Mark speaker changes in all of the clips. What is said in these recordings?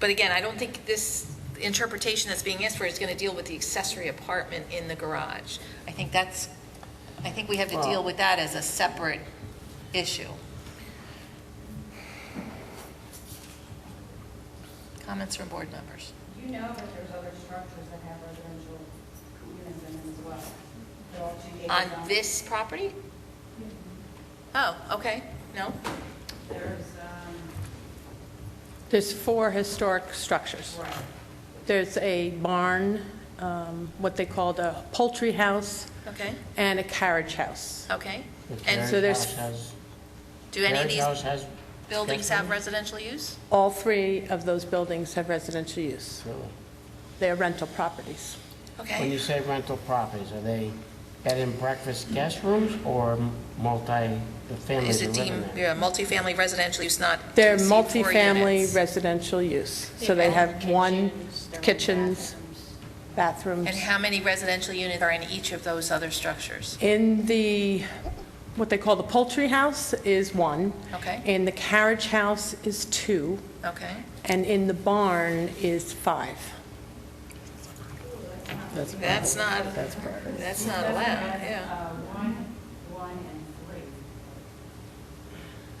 Speaker 1: But again, I don't think this interpretation that's being asked for is going to deal with the accessory apartment in the garage. I think that's, I think we have to deal with that as a separate issue. Comments from board members?
Speaker 2: You know that there's other structures that have residential units in them as well. They're all two acres
Speaker 1: On
Speaker 2: long.
Speaker 1: this property?
Speaker 3: Mm-hmm.
Speaker 1: Oh, okay, no?
Speaker 2: There's, um,
Speaker 4: There's four historic structures.
Speaker 2: right,
Speaker 4: There's a barn, um, what they called a poultry house,
Speaker 1: Okay,
Speaker 4: and a carriage house.
Speaker 1: okay.
Speaker 3: The
Speaker 1: And
Speaker 4: so
Speaker 3: carriage
Speaker 4: there's-
Speaker 3: house has-
Speaker 1: do any of
Speaker 3: carriage house
Speaker 1: these
Speaker 3: has
Speaker 1: buildings
Speaker 3: sketch
Speaker 1: have
Speaker 3: plans?
Speaker 1: residential use?
Speaker 4: All three of those buildings have residential use.
Speaker 3: Really?
Speaker 4: They are rental properties.
Speaker 3: When
Speaker 1: Okay,
Speaker 3: you say rental properties, are they bed and breakfast guest rooms or multi, the families
Speaker 1: is
Speaker 3: are
Speaker 1: it
Speaker 3: living
Speaker 1: deemed,
Speaker 3: there?
Speaker 1: yeah, multifamily residential use not to
Speaker 4: They're
Speaker 1: exceed four units?
Speaker 4: multifamily residential use, so they have one kitchens,
Speaker 1: And
Speaker 4: bathrooms.
Speaker 1: how many residential units are in each of those other structures?
Speaker 4: In the, what they call the poultry house is one.
Speaker 1: Okay.
Speaker 4: In the carriage house is two,
Speaker 1: Okay,
Speaker 4: and in the barn is five.
Speaker 1: that's not, that's not allowed, yeah.
Speaker 2: uh, one, one, and three.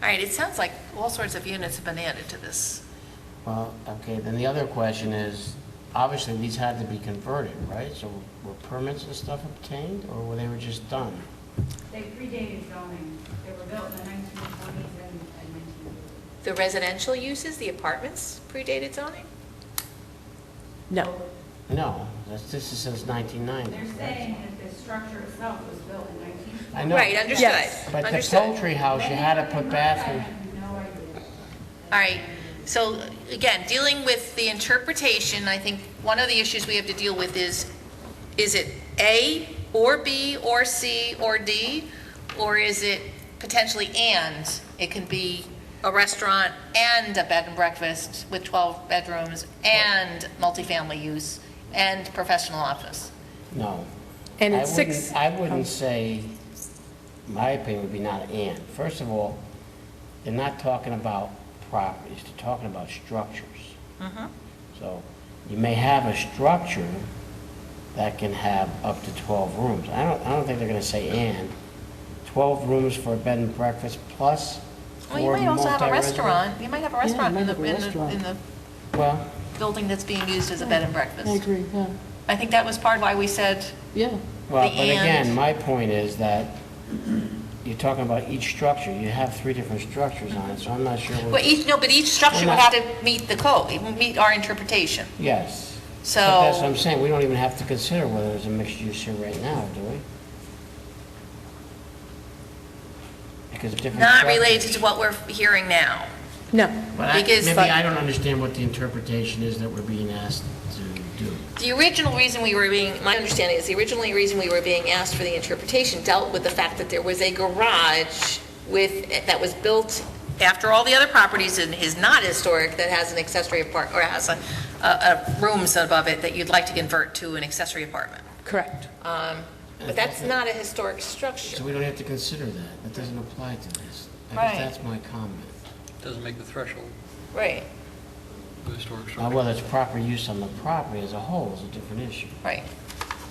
Speaker 1: All right, it sounds like all sorts of units have been added to this.
Speaker 3: Well, okay, then the other question is, obviously, these had to be converted, right? So were permits and stuff obtained, or were they were just done?
Speaker 2: They predated zoning. They were built in the nineteen twenties and and nineteen thirties.
Speaker 1: The residential uses, the apartments predated zoning?
Speaker 4: No.
Speaker 3: No, that's, this is since 1990.
Speaker 2: They're saying that the structure itself was built in nineteen twenty.
Speaker 3: I know,
Speaker 1: Right, understood,
Speaker 3: But the
Speaker 1: understood.
Speaker 3: poultry house, you had to put bathroom,
Speaker 2: I have no idea.
Speaker 1: All right, so again, dealing with the interpretation, I think one of the issues we have to deal with is, is it A or B or C or D? Or is it potentially and? It can be a restaurant and a bed and breakfast with 12 bedrooms and multifamily use and professional office.
Speaker 3: no.
Speaker 4: And
Speaker 3: I
Speaker 4: it's six,
Speaker 3: wouldn't- I
Speaker 1: Oh.
Speaker 3: wouldn't say, my opinion would be not and. First of all, they're not talking about properties, they're talking about structures.
Speaker 1: Mm-hmm.
Speaker 3: So you may have a structure that can have up to 12 rooms. I don't, I don't think they're going to say and. 12 rooms for a bed and breakfast plus
Speaker 1: Well, you
Speaker 3: four
Speaker 1: might also have a
Speaker 3: multi-resident-
Speaker 1: restaurant, you might have a
Speaker 5: you
Speaker 1: restaurant in
Speaker 5: might
Speaker 1: the,
Speaker 5: have a
Speaker 1: in the,
Speaker 5: restaurant.
Speaker 1: in the
Speaker 3: Well,
Speaker 1: building that's being used as a bed and breakfast.
Speaker 5: I agree, yeah,
Speaker 1: I think that was part why we said
Speaker 5: yeah.
Speaker 3: well,
Speaker 1: The
Speaker 3: but again,
Speaker 1: and.
Speaker 3: my point is that you're talking about each structure. You have three different structures on it, so I'm not sure. what-
Speaker 1: Well, e- each, no, but each structure would have to meet the code, it would meet our interpretation.
Speaker 3: Yes.
Speaker 1: So-
Speaker 3: But that's what I'm saying, we don't even have to consider whether there's a mixed use here right now, do we? Because different.
Speaker 1: Not
Speaker 3: structures-
Speaker 1: related to what we're hearing now.
Speaker 4: no.
Speaker 3: But I-
Speaker 1: because-
Speaker 3: Maybe I don't understand what the interpretation is that we're being asked to do.
Speaker 1: The original reason we were being, my understanding is the original reason we were being asked for the interpretation dealt with the fact that there was a garage with, that was built after all the other properties and is not historic, that has an accessory apart, or has a, a- a rooms above it that you'd like to convert to an accessory apartment.
Speaker 4: Correct.
Speaker 1: But that's not a historic structure.
Speaker 3: So we don't have to consider that, that doesn't apply to this. I
Speaker 1: Right.
Speaker 3: guess that's my comment.
Speaker 6: Doesn't make the threshold
Speaker 1: Right,
Speaker 6: of the historic
Speaker 3: Now,
Speaker 6: structure.
Speaker 3: whether it's proper use on the property as a whole is a different issue.
Speaker 1: right.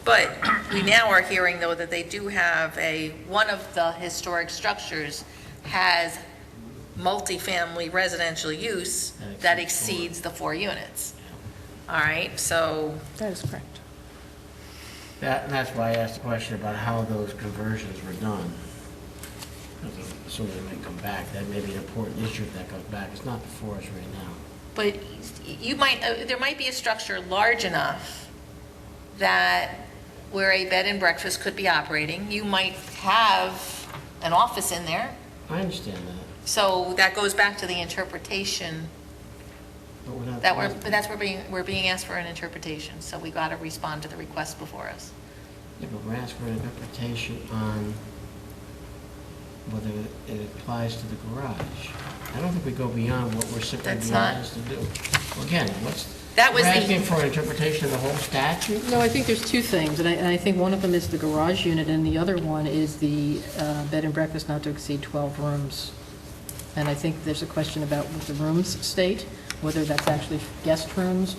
Speaker 1: But we now are hearing, though, that they do have a, one of the historic structures has multifamily residential use that
Speaker 3: That
Speaker 1: exceeds
Speaker 3: exceeds
Speaker 1: the four units. All right, so,
Speaker 4: That is correct.
Speaker 3: That, and that's why I asked the question about how those conversions were done. Because I'm Assuming they might come back, that may be an important issue if that comes back, it's not before us right now.
Speaker 1: but you might, uh, there might be a structure large enough that where a bed and breakfast could be operating. You might have an office in there,
Speaker 3: I understand that,
Speaker 1: so that goes back to the interpretation
Speaker 3: but we're not.
Speaker 1: That we're, but that's, we're being, we're being asked for an interpretation, so we got to respond to the request before us.
Speaker 3: Yeah, but we're asking for an interpretation on whether it applies to the garage. I don't think we go beyond what we're simply
Speaker 1: That's
Speaker 3: being
Speaker 1: not-
Speaker 3: asked to do. Again, what's,
Speaker 1: That
Speaker 3: we're
Speaker 1: was the-
Speaker 3: asking for an interpretation of the whole statute?
Speaker 5: No, I think there's two things, and I, and I think one of them is the garage unit, and the other one is the uh, bed and breakfast not to exceed 12 rooms. And I think there's a question about what the rooms state, whether that's actually guest rooms